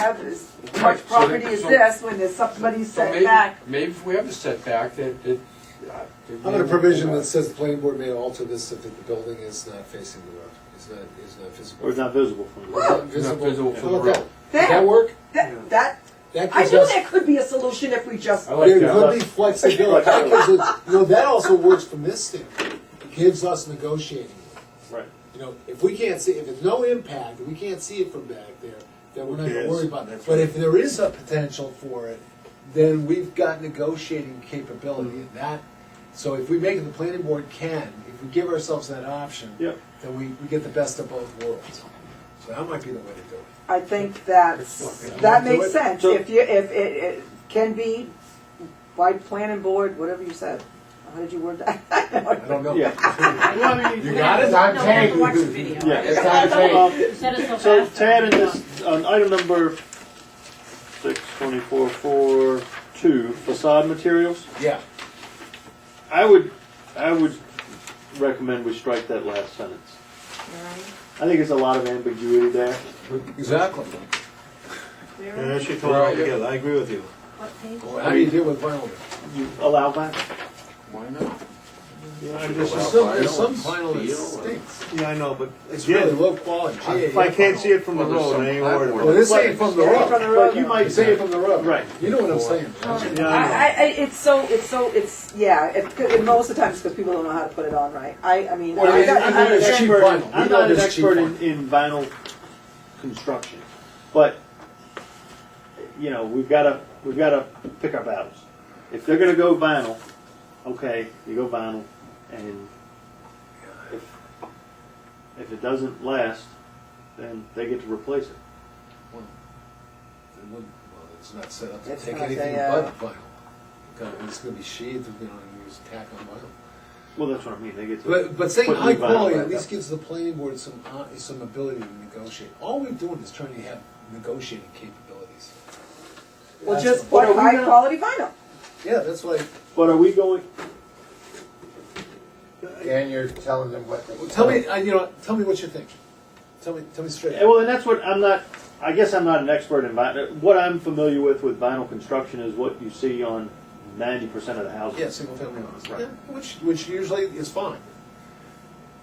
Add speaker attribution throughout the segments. Speaker 1: have as
Speaker 2: Right,
Speaker 1: much
Speaker 2: so
Speaker 1: property
Speaker 2: that-
Speaker 1: as
Speaker 2: so-
Speaker 1: this when there's somebody
Speaker 2: So
Speaker 1: set
Speaker 2: maybe-
Speaker 1: back.
Speaker 2: Maybe if we have a setback, that, that. uh, that
Speaker 3: I'm
Speaker 2: we-
Speaker 3: gonna provision that says the planning board may alter this if the building is not facing the road, is not, is not visible.
Speaker 4: Or it's not visible from
Speaker 3: Is
Speaker 4: the
Speaker 3: not
Speaker 2: Not visible from
Speaker 3: How
Speaker 2: the
Speaker 3: about
Speaker 2: road.
Speaker 3: that? Does that
Speaker 1: There,
Speaker 3: work?
Speaker 1: that, that,
Speaker 3: That
Speaker 1: I
Speaker 3: gives
Speaker 1: knew
Speaker 3: us,
Speaker 1: there could be a solution if we just,
Speaker 2: I like
Speaker 3: there
Speaker 2: that.
Speaker 3: could be flexibility, that gives us, you know, that also works from this standpoint, It gives us negotiating. room.
Speaker 4: Right.
Speaker 3: You know, if we can't see, if it's no impact, we can't see it from back there, then we're not gonna
Speaker 4: cares?
Speaker 3: worry about it. But if there is a potential for it, then we've got negotiating capability in that. So if we make it, the planning board can, if we give ourselves that option.
Speaker 4: Yep.
Speaker 3: then we, we get the best of both worlds. So that might be the way to do it.
Speaker 1: I think that's, that
Speaker 3: Do
Speaker 1: makes
Speaker 3: it.
Speaker 1: sense.
Speaker 4: So-
Speaker 1: If you, if it, it can be by planning board, whatever you said. How did you word that?
Speaker 3: I don't know.
Speaker 4: Yeah.
Speaker 3: You got it? I'm
Speaker 5: No, we have to
Speaker 3: paying.
Speaker 5: watch the video.
Speaker 4: Yeah.
Speaker 3: It's not
Speaker 4: Um,
Speaker 5: You said it so
Speaker 4: So
Speaker 5: fast.
Speaker 4: Tad in this, on item number six twenty-four four two facade materials,
Speaker 3: Yeah.
Speaker 4: I would, I would recommend we strike that last sentence. I think it's a lot of ambiguity there.
Speaker 3: Exactly.
Speaker 6: Yeah, that should come
Speaker 2: come out
Speaker 6: out
Speaker 2: together.
Speaker 6: together, I agree with you.
Speaker 5: What page?
Speaker 3: How do you deal with vinyl?
Speaker 4: You allow that?
Speaker 2: Why not?
Speaker 3: There's some, there's some vinyl that stinks.
Speaker 6: Yeah, I know, but
Speaker 3: It's really
Speaker 6: again,
Speaker 3: low quality.
Speaker 6: if I can't see it from the road, I ain't worried
Speaker 3: Well,
Speaker 6: about it.
Speaker 3: this ain't from the
Speaker 1: From the
Speaker 3: road.
Speaker 1: road.
Speaker 4: But you might
Speaker 3: It's ain't
Speaker 4: say,
Speaker 3: from the road.
Speaker 4: Right.
Speaker 3: You know what I'm saying.
Speaker 6: Yeah, I know.
Speaker 1: I, I, it's so, it's so, it's, yeah, it, and most of the time it's because people don't know how to put it on right. I, I mean,
Speaker 3: Well,
Speaker 1: I
Speaker 3: it-
Speaker 1: got, I
Speaker 3: I'm not
Speaker 1: got-
Speaker 3: an It's cheap
Speaker 4: expert in-
Speaker 3: vinyl. We
Speaker 4: I'm
Speaker 3: know
Speaker 4: not an
Speaker 3: there's cheap
Speaker 4: expert in,
Speaker 3: vinyl.
Speaker 4: in vinyl construction, but, you know, we've gotta, we've gotta pick our battles. If they're gonna go vinyl, okay, you go vinyl, and if, if it doesn't last, then they get to replace it.
Speaker 3: It wouldn't- well, It's not set up to
Speaker 1: It's
Speaker 3: take
Speaker 1: not
Speaker 3: anything
Speaker 1: a, uh,
Speaker 3: but vinyl. God, It's gonna be sheathed, you know, and use tack on vinyl.
Speaker 4: Well, that's what I mean, they get to.
Speaker 3: But, but saying
Speaker 4: put new
Speaker 3: high
Speaker 4: vinyl
Speaker 3: quality
Speaker 4: back
Speaker 3: at least
Speaker 4: up.
Speaker 3: gives the planning board some, uh, some ability to negotiate. All we're doing is trying to have negotiating capabilities.
Speaker 1: well,
Speaker 3: That's
Speaker 1: just
Speaker 3: what-
Speaker 1: put
Speaker 4: What are we
Speaker 1: high
Speaker 4: not-
Speaker 1: quality vinyl.
Speaker 3: Yeah, that's like,
Speaker 4: But are we going,
Speaker 7: And you're telling them what they.
Speaker 3: well, tell me, uh, you know, tell me what you think. Tell me, tell me straight.
Speaker 4: Yeah, well, and that's what I'm not. I guess I'm not an expert in vinyl. What I'm familiar with with vinyl construction is what you see on 90% of the houses.
Speaker 3: Yeah, single family homes,
Speaker 4: Right.
Speaker 3: Yeah, which, which usually is fine.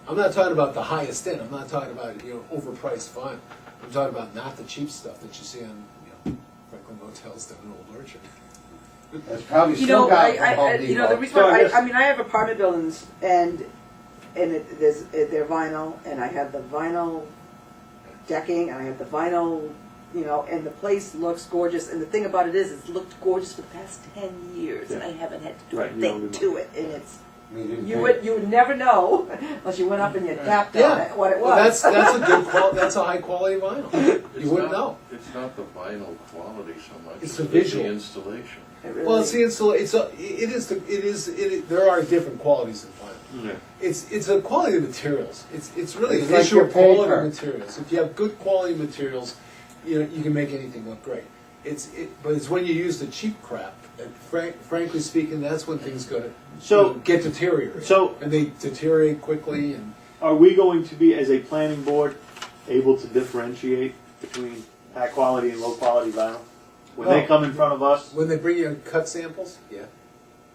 Speaker 3: I'm not talking about the highest end, I'm not talking about, you know, overpriced vinyl. I'm talking about not the cheap stuff that you see on, you know, Franklin motels down in Old Orchard.
Speaker 7: That's probably
Speaker 1: You
Speaker 7: still
Speaker 1: know,
Speaker 7: got
Speaker 1: I,
Speaker 7: it
Speaker 1: I,
Speaker 7: from Home
Speaker 1: I- you know, the
Speaker 7: Depot.
Speaker 1: reason
Speaker 4: So I
Speaker 1: why,
Speaker 4: guess-
Speaker 1: I, I mean, I have apartment buildings and, and it, there's, it- they're vinyl and I have the vinyl decking and I have the vinyl, you know, and the place looks gorgeous. And the thing about it is, it's looked gorgeous for the past ten years and I haven't had to do a
Speaker 4: Right, you don't
Speaker 1: thing
Speaker 4: do
Speaker 1: to it. And it's,
Speaker 7: We didn't
Speaker 4: Mm-hmm.
Speaker 1: you
Speaker 7: think-
Speaker 1: would, you would never know unless you went up and you tapped on it, what it
Speaker 3: Well, That's,
Speaker 1: was.
Speaker 3: that's a good qual, that's a high quality vinyl. You wouldn't know.
Speaker 8: It's not the vinyl quality so much.
Speaker 3: It's
Speaker 8: as
Speaker 3: the
Speaker 8: it is
Speaker 3: visual.
Speaker 8: The installation.
Speaker 1: It
Speaker 3: Well,
Speaker 1: really-
Speaker 3: it's the install. It's a. It is. The, it is. It, is- there are different qualities in vinyl.
Speaker 4: Yeah.
Speaker 3: It's it's a quality of materials. It's it's really
Speaker 7: It's
Speaker 3: an
Speaker 7: like
Speaker 3: issue of
Speaker 7: your paper.
Speaker 3: quality of materials. If you have good quality materials, you know you can make anything look great. It's it, but it's when you use the cheap crap. And frank, frankly speaking, that's when things go to
Speaker 4: So-
Speaker 3: get deteriorate.
Speaker 4: so-
Speaker 3: and they deteriorate quickly. And
Speaker 4: Are we going to be, as a planning board, able to differentiate between high quality and low quality vinyl? When they
Speaker 3: No.
Speaker 4: come in front of us,
Speaker 3: when they bring you cut samples, yeah,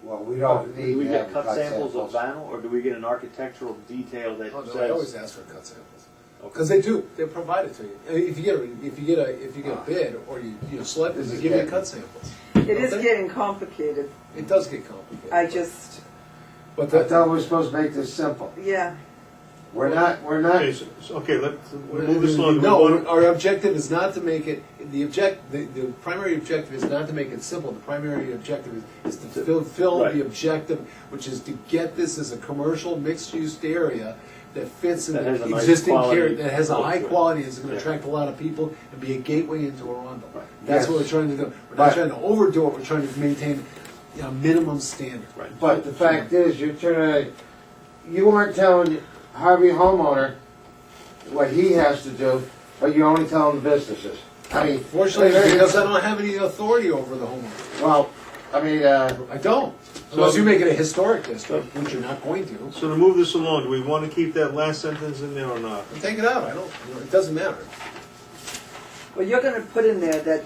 Speaker 7: Well, we don't need.
Speaker 4: do we
Speaker 7: to
Speaker 4: get
Speaker 7: have
Speaker 4: cut samples of vinyl or do we get an architectural detail that
Speaker 3: oh, no, I always
Speaker 4: says.
Speaker 3: ask for cut samples.
Speaker 4: Okay.
Speaker 3: Because they do, they provide it to you. I mean, If you get a, if you get a, if you get a bid or you, you know, select it,
Speaker 7: Ah. This
Speaker 3: they
Speaker 7: is
Speaker 3: give you
Speaker 7: getting-
Speaker 3: cut samples.
Speaker 1: It is
Speaker 3: Okay.
Speaker 1: getting complicated.
Speaker 3: It does get complicated.
Speaker 1: I
Speaker 3: but-
Speaker 1: just,
Speaker 3: But
Speaker 7: I
Speaker 3: that,
Speaker 7: thought we were supposed to make this simple.
Speaker 1: yeah.
Speaker 7: We're not, we're not,
Speaker 6: Okay, so, so- okay, let's, we'll move this along.
Speaker 3: no, our objective is not to make it, the object, the, the primary objective is not to make it simple. The primary objective is, is to fulfill
Speaker 4: Right.
Speaker 3: the objective, which is to get this as a commercial mixed-use area that fits in
Speaker 4: That has a
Speaker 3: the
Speaker 4: nice
Speaker 3: existing care,
Speaker 4: quality
Speaker 3: that has a
Speaker 4: look
Speaker 3: high
Speaker 4: to it.
Speaker 3: quality, is gonna
Speaker 4: Yeah.
Speaker 3: attract a lot of people and be a gateway into Arundel.
Speaker 4: Right.
Speaker 3: That's
Speaker 7: Yes.
Speaker 3: what we're trying to do. We're not
Speaker 7: But-
Speaker 3: trying to overdo it, we're trying to maintain, you know, minimum standard.
Speaker 4: Right.
Speaker 7: but the fact is, you're trying to, you aren't telling Harvey homeowner what he has to do, but you're only telling the businesses. I mean.
Speaker 3: Fortunately, because I don't have any authority over the homeowner.
Speaker 7: Well, I mean, uh.
Speaker 3: I don't. Unless you make it a historic district, which you're not going to.
Speaker 6: So to move this along, do we want to keep that last sentence in there or not?
Speaker 3: Take it out, I don't, you know, it doesn't matter.
Speaker 1: Well, you're gonna put in there that